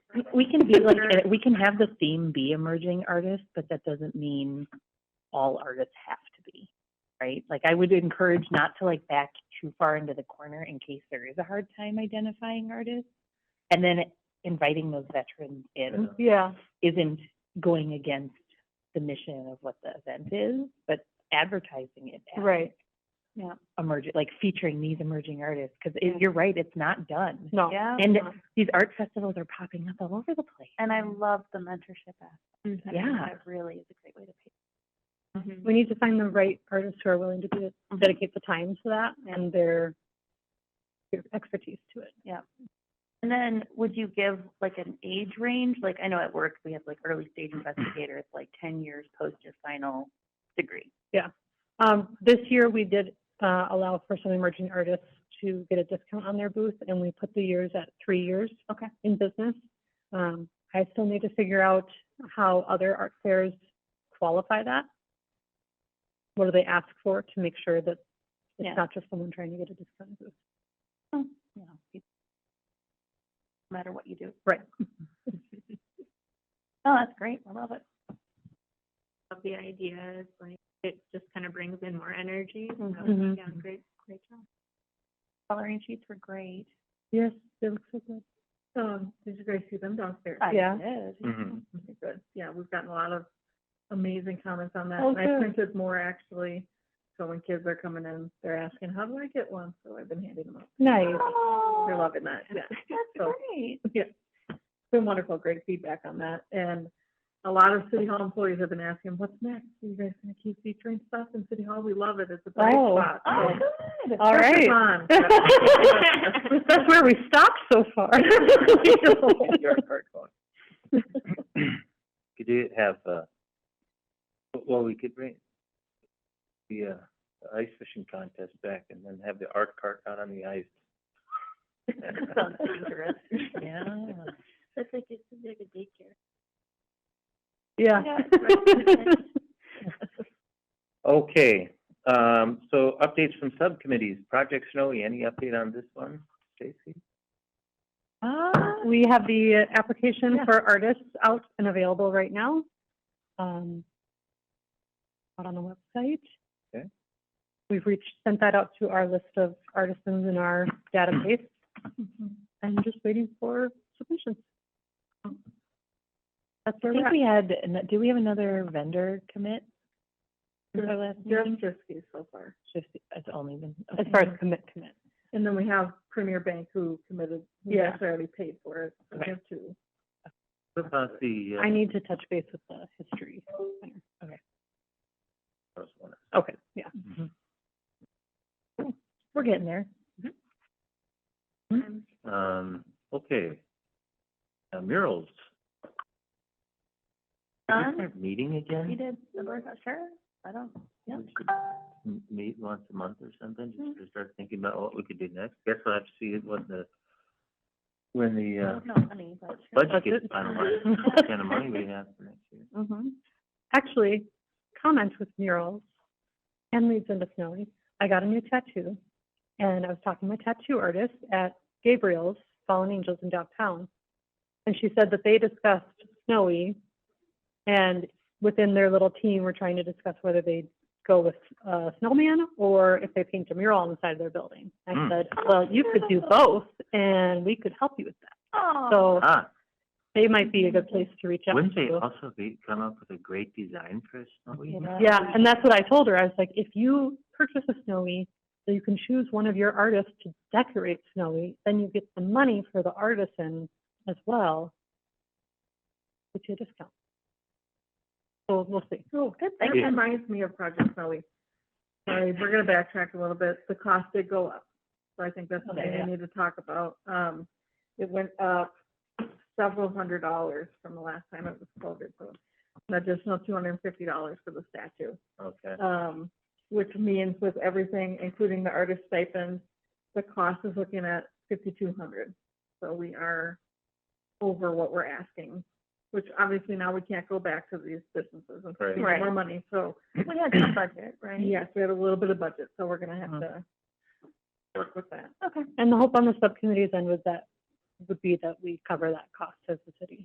We can be like, uh, we can have the theme be emerging artists, but that doesn't mean all artists have to be, right? Like, I would encourage not to like back too far into the corner in case there is a hard time identifying artists. And then inviting those veterans in Yeah. isn't going against the mission of what the event is, but advertising it as Right. Yeah. emerging, like featuring these emerging artists, because Yeah. you're right, it's not done. No. Yeah. Uh-huh. And these art festivals are popping up all over the place. And I love the mentorship aspect. I think Yeah. That really is a great way to pay. Mm-hmm. We need to find the right artists who are willing to do, dedicate the time to that and their, their expertise to it. And then would you give like an age range? Like I know at work we have like early stage investigators, like ten years post your final degree. Um, this year we did, uh, allow for some emerging artists to get a discount on their booth and we put the years at three years. Okay. In business. Um, I still need to figure out how other art fairs qualify that. What do they ask for to make sure that Yeah. it's not just someone trying to get a discount booth? You know, people- no matter what you do. Right. Oh, that's great. I love it. of the ideas, like it just kind of brings in more energy. So, Mhm. yeah, great, great job. Coloring sheets were great. Yes, they look so good. Um, did you guys see them downstairs? I Yeah. did. Mhm. Okay, Good, yeah, we've gotten a lot of amazing comments on that. Oh, And I good. printed more actually, so when kids are coming in, they're asking, how do I get one? So I've been handing them out. Nice. They're Oh, loving that, yeah. that's So- great. Yeah, it's been wonderful, great feedback on that. And a lot of City Hall employees have been asking, what's next? Are you guys gonna keep featuring stuff in City Hall? We love it, it's a bright Oh. spot. Oh, So, good. All press right. is on. That's where we stopped so far. Could you have, uh, well, we could bring the, uh, the ice fishing contest back and then have the art cart out on the ice. Sounds dangerous. Yeah. That's like it's like a daycare. Yeah. Yeah, Okay, um, so updates from subcommittees. Project Snowy, any update on this one, Stacy? We have the uh, application for artists out and available right now. um, Out on the website. Okay. We've reached, sent that out to our list of artisans in our database. Mm-hmm. And just waiting for submissions. That's I where we're think at. we had, an- do we have another vendor commit? for our last Just meeting? Friskies so far. Just, it's only been, As okay. far as commit, commit. And then we have Premier Bank who committed, who Yeah. actually already paid for it, so we have two. What about the, uh, I need to touch base with the history. first one? Okay, yeah. Mm-hmm. we're getting there. Um, okay. Uh, murals. Did we Done. start meeting again? You did, the board, sure, I don't, yeah. We should m- meet once a month or something, just to start thinking about what we could do next. Guess we'll have to see it when the, I when the, don't know, honey, but uh, budget That's gets it. finalized, what kind of money we have for next year. Mm-hmm. Actually, comment with murals and leads into snowy. I got a new tattoo and I was talking to a tattoo artist at Gabriel's Fallen Angels in downtown. And she said that they discussed snowy and within their little team were trying to discuss whether they'd go with a snowman or if they paint a mural on the side of their building. I Hmm. said, well, you could do both and we could help you with that. So Ah, they might be a good place to reach out wouldn't they to. also be, come up with a great design for a snowy? Yeah, and that's what I told her. I was like, if you purchase a Snowy, so you can choose one of your artists to decorate Snowy, then you get the money for the artisan as well, which you a discount. So we'll see. Oh, that Thank you. reminds me of Project Snowy. Sorry, we're gonna backtrack a little bit. The cost did go up. So I think that's something yeah. we need to talk about. Um, it went up several hundred dollars from the last time it was quoted, so an additional two hundred and fifty dollars for the statue. Okay, Um, which means with everything, including the artist stipend, the cost is looking at fifty-two hundred. So we are over what we're asking, which obviously now we can't go back to these businesses and Right. give them more money, so. We had some budget, right? Yes, we had a little bit of budget, so we're gonna have Mhm. to work with that. And the hope on the subcommittee's end was that, would be that we cover that cost as the